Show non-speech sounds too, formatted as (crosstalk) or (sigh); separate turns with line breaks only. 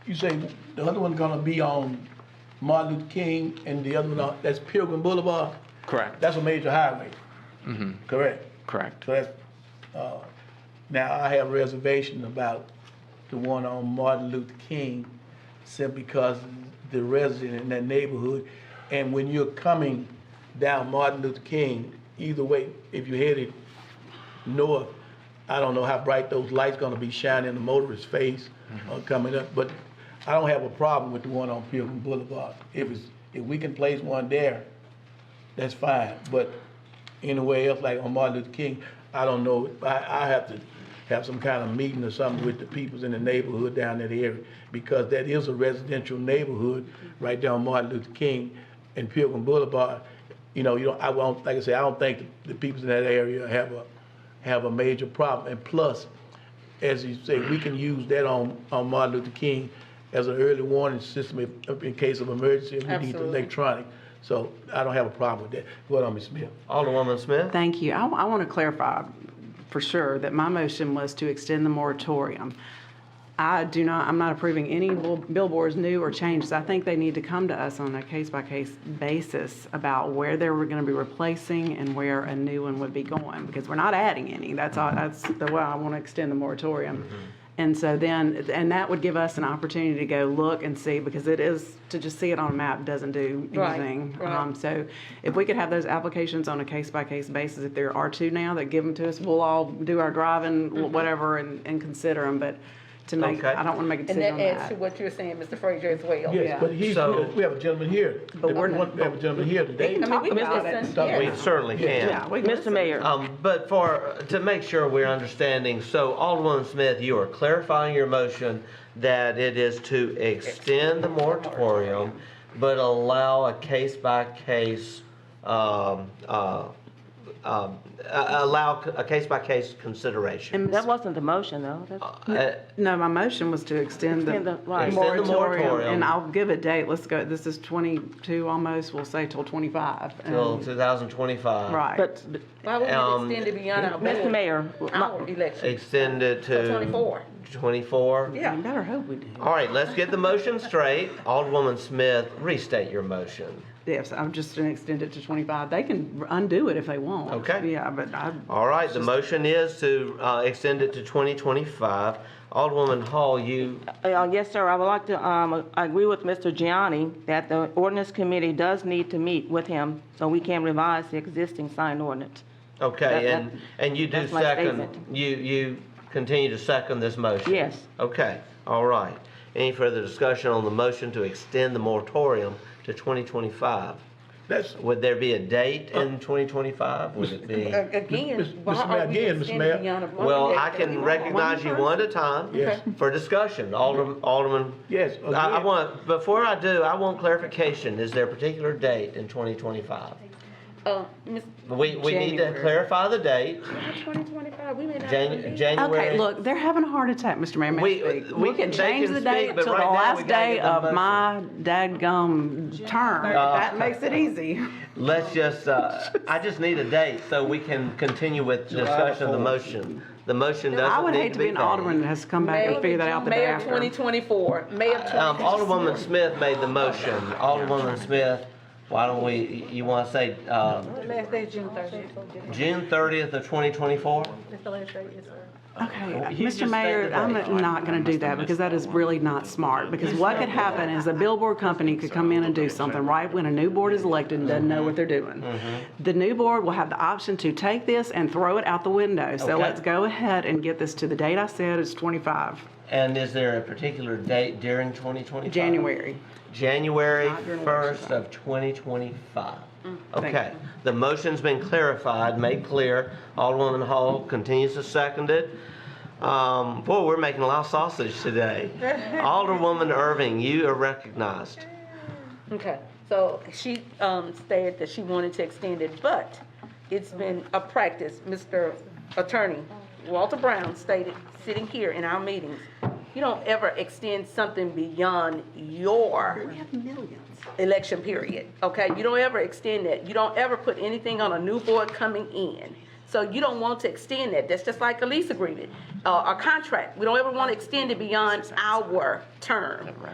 You say the other one gonna be on Martin Luther King and the other one, on- that's Pilgrim Boulevard?
Correct.
That's a major highway? Correct?
Correct.
So that's, uh, now I have reservations about the one on Martin Luther King simply because the resident in that neighborhood. And when you're coming down Martin Luther King, either way, if you're headed north, I don't know how bright those lights gonna be shining in the motorist's face uh, coming up, but I don't have a problem with the one on Pilgrim Boulevard. If it's, if we can place one there, that's fine. But anywhere else, like on Martin Luther King, I don't know, I, I have to have some kind of meeting or something with the peoples in the neighborhood down that area, because that is a residential neighborhood right down Martin Luther King and Pilgrim Boulevard. You know, you don't, I won't, like I said, I don't think the peoples in that area have a, have a major problem. And plus, as you say, we can use that on, on Martin Luther King as an early warning system if, in case of emergency, if we need the
Absolutely.
electronic. So I don't have a problem with that. Go ahead, Ms. Smith.
Alderwoman Smith?
Thank you. I, want to clarify for sure that my motion was to extend the moratorium. I do not, I'm not approving any bill- billboards new or changes. I think they need to come to us on a case-by-case basis about where they were going to be replacing and where a new one would be going, because we're not adding any. That's all, that's the way I want to extend the moratorium.
Mm-hmm.
And so then, and that would give us an opportunity to go look and see, because it is, to just see it on a map doesn't do
Right,
anything.
right.
Um, so if we could have those applications on a case-by-case basis, if there are two now that give them to us, we'll all do our driving, wh- whatever, and, and consider them, but to make,
Mm-hmm. Okay.
I don't want to make a
And
decision
that
on
adds to
that.
what you were saying, Mr. Frazier, as well.
Yes, but he's,
So-
we have a gentleman here.
But we're
We
not-
want- We have a gentleman here today.
can
I mean, we
Talk
can
about it.
listen,
Talk-
yeah.
We certainly
Yeah,
can.
we can
Mr.
listen.
Mayor,
Um, But for, to make sure we're understanding, so Alderwoman Smith, you are clarifying your motion that it is to extend the moratorium, but allow a case-by-case, um, uh, um, a- allow a case-by-case consideration.
that wasn't the motion, though. That's-
Uh,
No, my motion was to extend the
Extend the- right.
Extend the moratorium.
moratorium, and I'll give a date, let's go, this is twenty-two almost, we'll say till twenty-five. and-
Till 2025.
Mm-hmm. Right.
But, but,
Why would
Um,
we extend it beyond our
Mr.
board,
Mayor, my-
our election?
Extend it to.
To 24.
24.
Yeah.
you better hope we do.
All right, let's get the motion straight. Alderwoman Smith, restate your motion.
Yes, I'm just gonna extend it to twenty-five, they can undo it if they want.
Okay.
Yeah, but I,
All right, the motion is to uh, extend it to 2025. Alderwoman Hall, you,
Uh, yes, sir, I would like to, um, I agree with Mr. Gianni that the ordinance committee does need to meet with him so we can revise the existing sign ordinance. That-
okay,
that-
and, and you do
that's my
second,
statement.
you, you continue to second this motion?
Yes.
Okay, all right. Any further discussion on the motion to extend the moratorium to 2025?
That's,
Would there be a date in 2025? Would it be?
A- Again,
Mr.
why
Mayor,
are we
again, Mr.
extending
Mayor.
it beyond our board
Well, I
election?
can
Uh, One
recognize you
person?
one at a
Yes.
time for discussion. Alderman, Alderman.
Yes,
I- I
again.
want, before I do, I want clarification. Is there a particular date in 2025?
Uh, Ms.
We, we need to
January.
clarify the date,
Twenty twenty-five, we may not.
Jan-
Okay,
January.
look, they're having a heart attack, Mr. Mayor. May I
We-
speak? We
we can-
can
they
change
can
the
speak,
date
but
till the
right now we
last
gotta
day
get Uh, the
of my dadgum term. That makes it easy.
Let's just, uh,
(laughs)
I just need a date so we can continue with discussion of the motion. The motion
I
doesn't
would
need
hate
to
to
be
be an alderman that
named.
has to come back and figure that out the day
May
after.
of twenty twenty-four, May of
Um,
twenty.
Alderwoman Smith made the motion. Alderwoman Smith, why don't we, you want to say, uh,
Last day, June thirtieth.
June 30th of 2024?
Okay,
Well, you
Mr.
just
Mayor,
stated
I'm
that.
not gonna do that because that is really not smart. Because what could happen is a billboard company could come in and do something right when a new board is elected and doesn't know what they're
Mm-hmm.
doing. The new board will have the option to take this and throw it out the window. So
Okay.
let's go ahead and get this to the date I said, it's 25,
And is there a particular date during 2025?
January.
January
Not during election
1st of 2025.
Thank
Okay, the motion's been clarified, made clear. Alderwoman Hall continues to second it. Um, Boy, we're making a lot of sausage today.
(laughs)
Alderwoman Irving, you are recognized.
Okay, so she, um, stated that she wanted to extend it, but it's been a practice, Mr. Attorney Walter Brown stated, sitting here in our meetings, you don't ever extend something beyond your election period, okay? You don't ever extend that. You don't ever put anything on a new board coming in. So you don't want to extend that. That's just like a lease agreement, uh, a contract. We don't ever want to extend it beyond our term.